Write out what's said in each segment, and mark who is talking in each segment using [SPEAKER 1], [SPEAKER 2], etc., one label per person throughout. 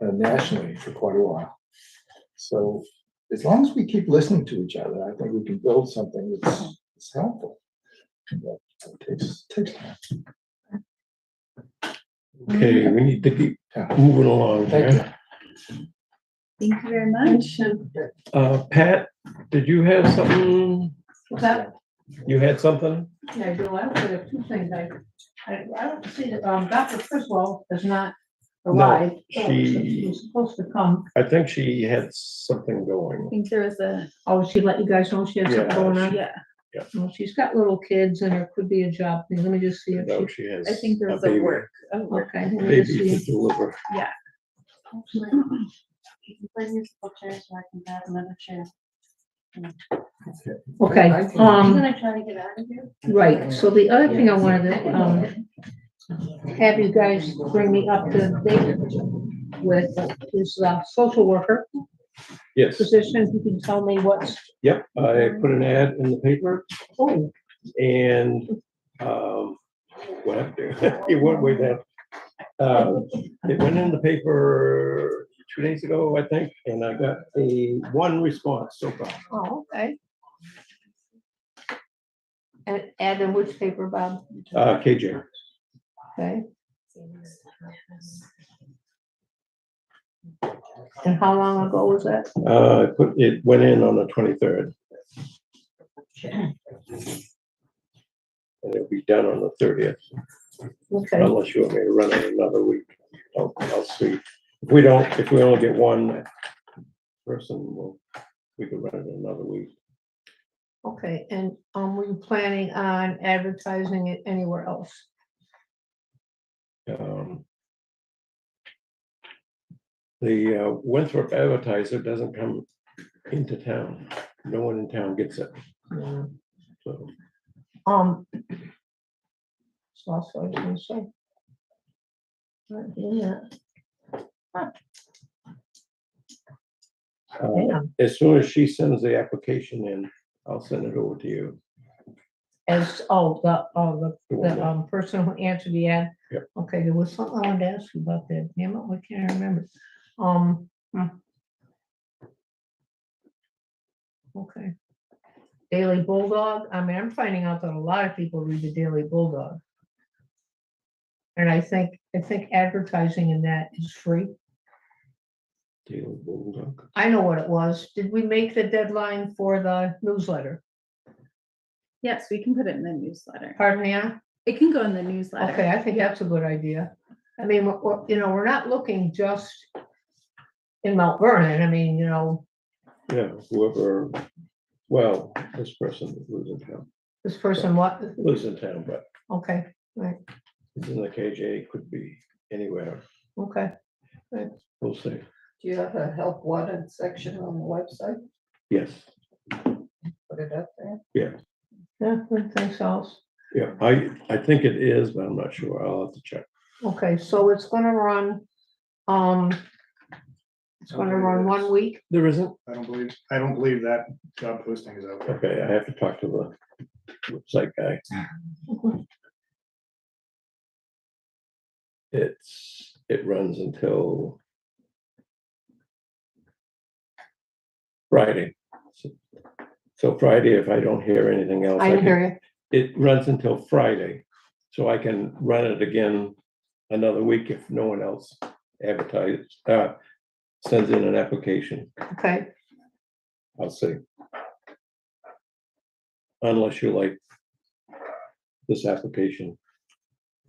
[SPEAKER 1] uh, nationally for quite a while. So as long as we keep listening to each other, I think we can build something that's, that's helpful. But it Takes, takes time.
[SPEAKER 2] Mm-hmm.
[SPEAKER 3] Okay, we need to keep
[SPEAKER 1] Yeah.
[SPEAKER 3] moving along
[SPEAKER 1] Thank
[SPEAKER 3] here.
[SPEAKER 1] you.
[SPEAKER 2] Thank you very much.
[SPEAKER 3] Uh, Pat, did you have something?
[SPEAKER 4] What's that?
[SPEAKER 3] You had something?
[SPEAKER 4] Yeah, Bill, I actually have two things. I, I, I don't see that, um, Dr. Criswell is not
[SPEAKER 3] No,
[SPEAKER 4] alive. Oh,
[SPEAKER 3] she-
[SPEAKER 4] She was supposed to come.
[SPEAKER 3] I think she had something
[SPEAKER 2] I
[SPEAKER 3] going.
[SPEAKER 2] think there was a,
[SPEAKER 4] Oh, she let you guys know she had
[SPEAKER 3] Yeah,
[SPEAKER 4] something going on?
[SPEAKER 2] yeah,
[SPEAKER 4] Well, she's got little kids and there could be a job. thing. Let me just see if
[SPEAKER 3] No,
[SPEAKER 4] she,
[SPEAKER 3] she has.
[SPEAKER 2] I think there was a
[SPEAKER 3] baby-
[SPEAKER 2] work, a work.
[SPEAKER 4] okay. let me just
[SPEAKER 3] Baby to
[SPEAKER 4] see.
[SPEAKER 3] deliver.
[SPEAKER 2] Mm-hmm.
[SPEAKER 4] Okay,
[SPEAKER 1] I think-
[SPEAKER 4] um,
[SPEAKER 5] try to get out of here?
[SPEAKER 4] right. So the other thing I wanted to, um, have you guys bring me up to date with is, uh, social worker
[SPEAKER 3] Yes,
[SPEAKER 4] position. You can tell me what's,
[SPEAKER 3] yep, I
[SPEAKER 2] Mm-hmm.
[SPEAKER 3] put an ad in the paper
[SPEAKER 4] oh,
[SPEAKER 3] and, um, what happened there? It went way down. Uh, it went in the paper two days ago, I think, and I got a one response so far.
[SPEAKER 2] Oh, okay. And add in which paper, Bob?
[SPEAKER 3] Uh, KJ,
[SPEAKER 2] Okay. And how long ago was that?
[SPEAKER 3] uh, I put, it went in on the twenty-third. And it'll be done on the thirtieth.
[SPEAKER 2] Okay,
[SPEAKER 3] unless you want me to run it another week. I'll, I'll see. If we don't, if we only get one person, we'll, we could run it another week.
[SPEAKER 4] okay. And, um, were you planning on advertising it anywhere else?
[SPEAKER 3] Um, The uh, Winthrop advertiser doesn't come into town. No one in town gets it. So,
[SPEAKER 4] Um. So that's what I was gonna say. Right, Yeah,
[SPEAKER 3] uh,
[SPEAKER 4] yeah.
[SPEAKER 3] as soon as she sends the application in, I'll send it over to you.
[SPEAKER 4] As, oh, the, oh,
[SPEAKER 3] The
[SPEAKER 4] the,
[SPEAKER 3] one
[SPEAKER 4] the
[SPEAKER 3] that-
[SPEAKER 4] um, person who answered the ad.
[SPEAKER 3] Yep.
[SPEAKER 4] Okay, there was something I wanted to ask you about that, damn it, why can't I remember? Um. hmm. Okay. Daily Bulldog, I mean, I'm finding out that a lot of people read the Daily Bulldog. And I think, I think advertising in that is free.
[SPEAKER 3] Daily Bulldog.
[SPEAKER 4] I know what it was. Did we make the deadline for the newsletter?
[SPEAKER 5] Yes, we can put it in the newsletter.
[SPEAKER 4] Pardon me, Ann?
[SPEAKER 5] It can go in the newsletter.
[SPEAKER 4] Okay, I think that's a good idea. I mean, we're- we're- you know, we're not looking just in Mount Vernon. I mean, you know,
[SPEAKER 3] Yeah, whoever, well, this person lives in town,
[SPEAKER 4] this person, what,
[SPEAKER 3] lives in town, but
[SPEAKER 4] okay,
[SPEAKER 3] It's in the KJ, could be anywhere,
[SPEAKER 4] okay.
[SPEAKER 3] we'll see,
[SPEAKER 6] Do you have a help wanted section on the website?
[SPEAKER 3] yes,
[SPEAKER 6] Put it up there?
[SPEAKER 4] Yeah, good, thanks, Alice.
[SPEAKER 3] yeah, I, I think it is, but I'm not sure, I'll have to check.
[SPEAKER 4] Okay, so it's gonna run, um, it's gonna run one week.
[SPEAKER 3] There isn't?
[SPEAKER 7] I don't believe, I don't believe that job posting is out there.
[SPEAKER 3] Okay, I have to talk to the website guy. It's, it runs until Friday. So- So Friday, if I don't hear anything else,
[SPEAKER 4] I
[SPEAKER 3] I
[SPEAKER 4] didn't
[SPEAKER 3] can,
[SPEAKER 4] hear you.
[SPEAKER 3] it runs until Friday, so I can run it again another week if no one else advertises, uh, sends in an application,
[SPEAKER 4] Okay,
[SPEAKER 3] I'll see. Unless you like this application.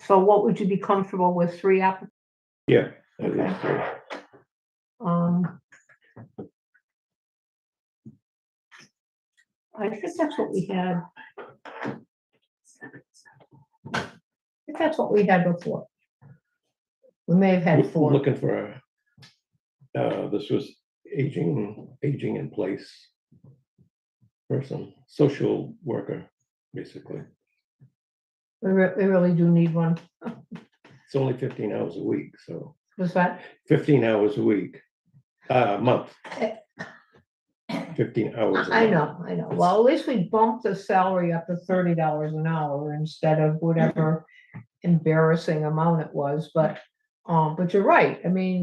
[SPEAKER 4] so what would you be comfortable with? Three applicants?
[SPEAKER 3] Yeah. I think so.
[SPEAKER 4] Um. I think that's what we had. I think that's what we had before. We may have had
[SPEAKER 3] We're
[SPEAKER 4] four.
[SPEAKER 3] Looking for, a- uh, this was aging, aging in place person, social worker, basically.
[SPEAKER 4] We re- we really do need one.
[SPEAKER 3] It's only fifteen hours a week, so.
[SPEAKER 4] Was that,
[SPEAKER 3] fifteen hours a week, uh, a month. Fifteen hours. a
[SPEAKER 4] Eh. I
[SPEAKER 3] month.
[SPEAKER 4] know, I know. Well, at least we bumped the salary up to thirty dollars an hour instead of whatever embarrassing amount it was, but, um, but you're right. I mean,